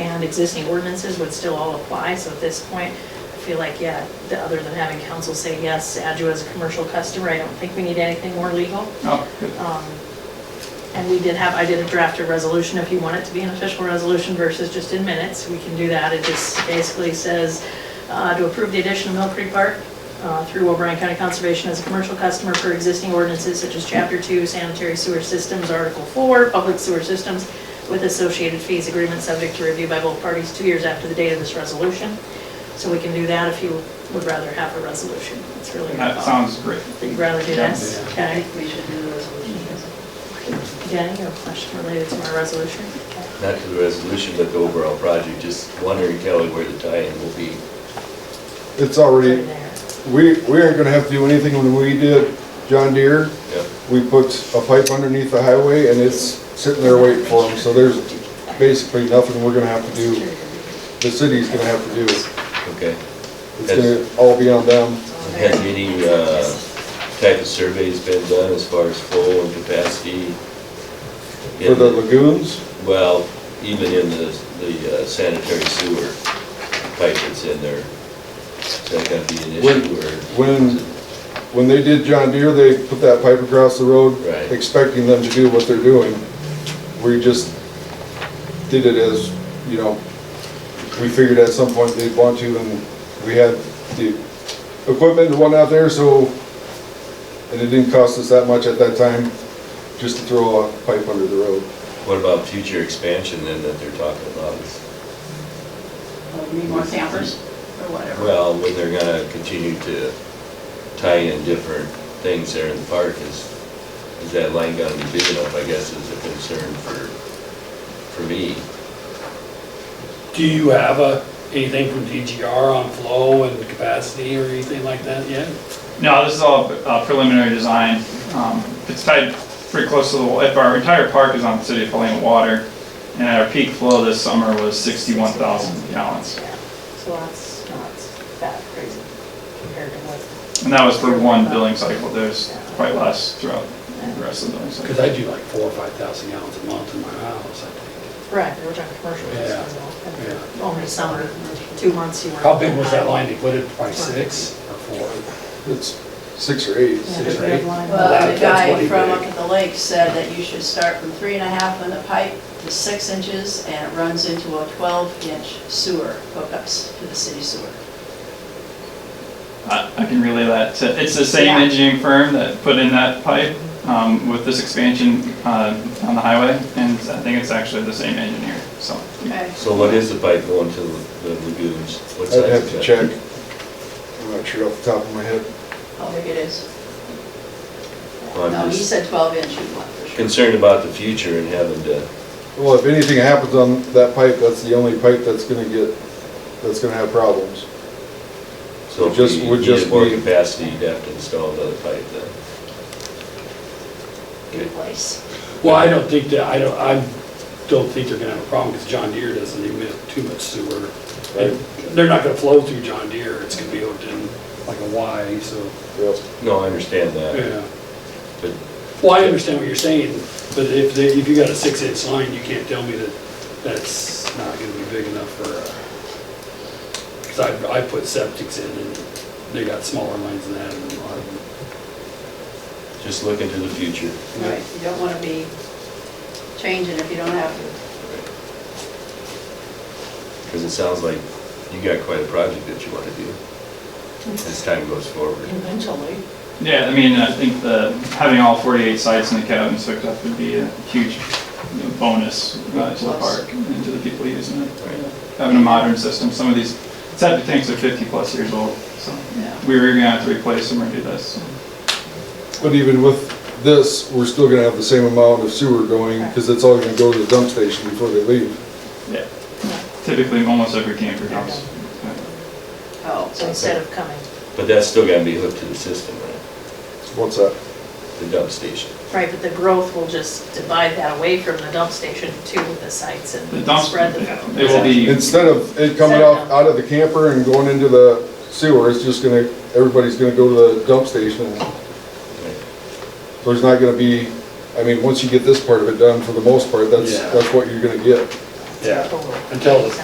um, existing ordinances would still all apply, so at this point, I feel like, yeah, the- other than having council say, yes, Adjo is a commercial customer, I don't think we need anything more legal. Oh, good. Um, And we did have, I did draft a resolution, if you want it to be an official resolution versus just in minutes, we can do that. It just basically says uh, to approve the addition of Mill Creek Park uh, through O'Brien County Conservation as a commercial customer for existing ordinances such as Chapter 2 Sanitary Sewer Systems, Article 4 Public Sewer Systems with associated fees agreement subject to review by both parties two years after the date of this resolution. So we can do that if you would rather have a resolution. It's really not. That sounds great. You'd rather do this? I Okay. think we should do the resolution. Jenny, you have a question related to my resolution? not to the resolution, but the overall project, just wondering, Kelly, where the tie-in will be. Put It's already, it there. we, we aren't gonna have to do anything when we did John Deere. Yep. We put a pipe underneath the highway and it's sitting there waiting for them, so there's basically nothing we're gonna have to do, the city's gonna have to do. Okay. It's gonna all be on them. Has any uh, type of surveys been done as far as flow and capacity? For the lagoons, Well, even in the the uh, sanitary sewer pipe that's in there, is that going to be an issue or? when, when they did John Deere, they put that pipe across the road, Right. expecting them to do what they're doing. We just did it as, you know, we figured at some point they'd want to, and we had the equipment and whatnot there, so, and it didn't cost us that much at that time, just to throw a pipe under the road. What about future expansion then that they're talking about? Oh, we Need more campers or whatever. Well, when they're going to continue to tie in different things there in the park, is, is that line going to be big enough, I guess, is a concern for, for me. Do you have a, anything from DGR on flow and capacity or anything like that yet? No, this is all uh, preliminary design. Um, It's tied pretty close to the, wa- if our entire park is on the city of Helena water, and our peak flow this summer was 61,000 gallons. Yeah, So that's not that crazy compared to what, And that was for one billing cycle, there's quite less throughout the rest of the billing Because cycle. I do like four or five thousand gallons a month in my house, I think. right, we're talking commercial Yeah, business, yeah. well, only summer, two months you were. How big was that line? They put it by six or four? It's six or eight. Yeah, Six or big eight? line. Well, the That- that's guy what he from did. up at the lake said that you should start from three and a half in the pipe to six inches, and it runs into a 12-inch sewer hookups to the city sewer. I I can relay that to, it's the same Yeah. engineering firm that put in that pipe um, with this expansion uh, on the highway, and I think it's actually the same engineer, so. Okay. So what is the pipe going to the lagoons? What size I'd have is to that? check. I'm not sure off the top of my head. How big it is. Well, I'm No, he just- said 12 inch you want for sure. Concerned about the future and having to, Well, if anything happens on that pipe, that's the only pipe that's gonna get, that's gonna have problems. so Would if just- we would just needed more be- capacity, you'd have to install another pipe then. Good place. Well, I don't think that, I don't, I don't think they're gonna have a problem because John Deere doesn't emit too much sewer. And They're not gonna flow through John Deere. It's gonna be out in like a Y, so, Yep. No, I understand that, yeah. but Well, I understand what you're saying, but if, they- if you got a six-inch line, you can't tell me that that's not gonna be big enough for, because I, I put septics in, and they got smaller lines than that, and a lot of just looking to the future. Right, you don't want to be changing if you don't have to. Because it sounds like you got quite a project that you want to do as time goes forward. Eventually. Yeah, I mean, I think the, having all 48 sites in the cabins hooked up would be a huge you know, bonus uh, to the park and to the people using it. Having a modern system, some of these septic tanks are 50-plus years old, so we were gonna have to replace them or do this. But even with this, we're still gonna have the same amount of sewer going, because it's all gonna go to the dump station before they leave. Yeah. Typically, almost every camper house. Oh, So instead of coming, But that's still going to be hooked to the system, right? What's that? The dump station. right, but the growth will just divide that away from the dump station to the sites and The dumps, spread the. it will be, Instead of it coming out, out of the camper and going into the sewer, it's just gonna, everybody's gonna go to the dump station. right? So There's not gonna be, I mean, once you get this part of it done, for the most part, that's, Yeah. that's what you're gonna get. Yeah. Total. Until the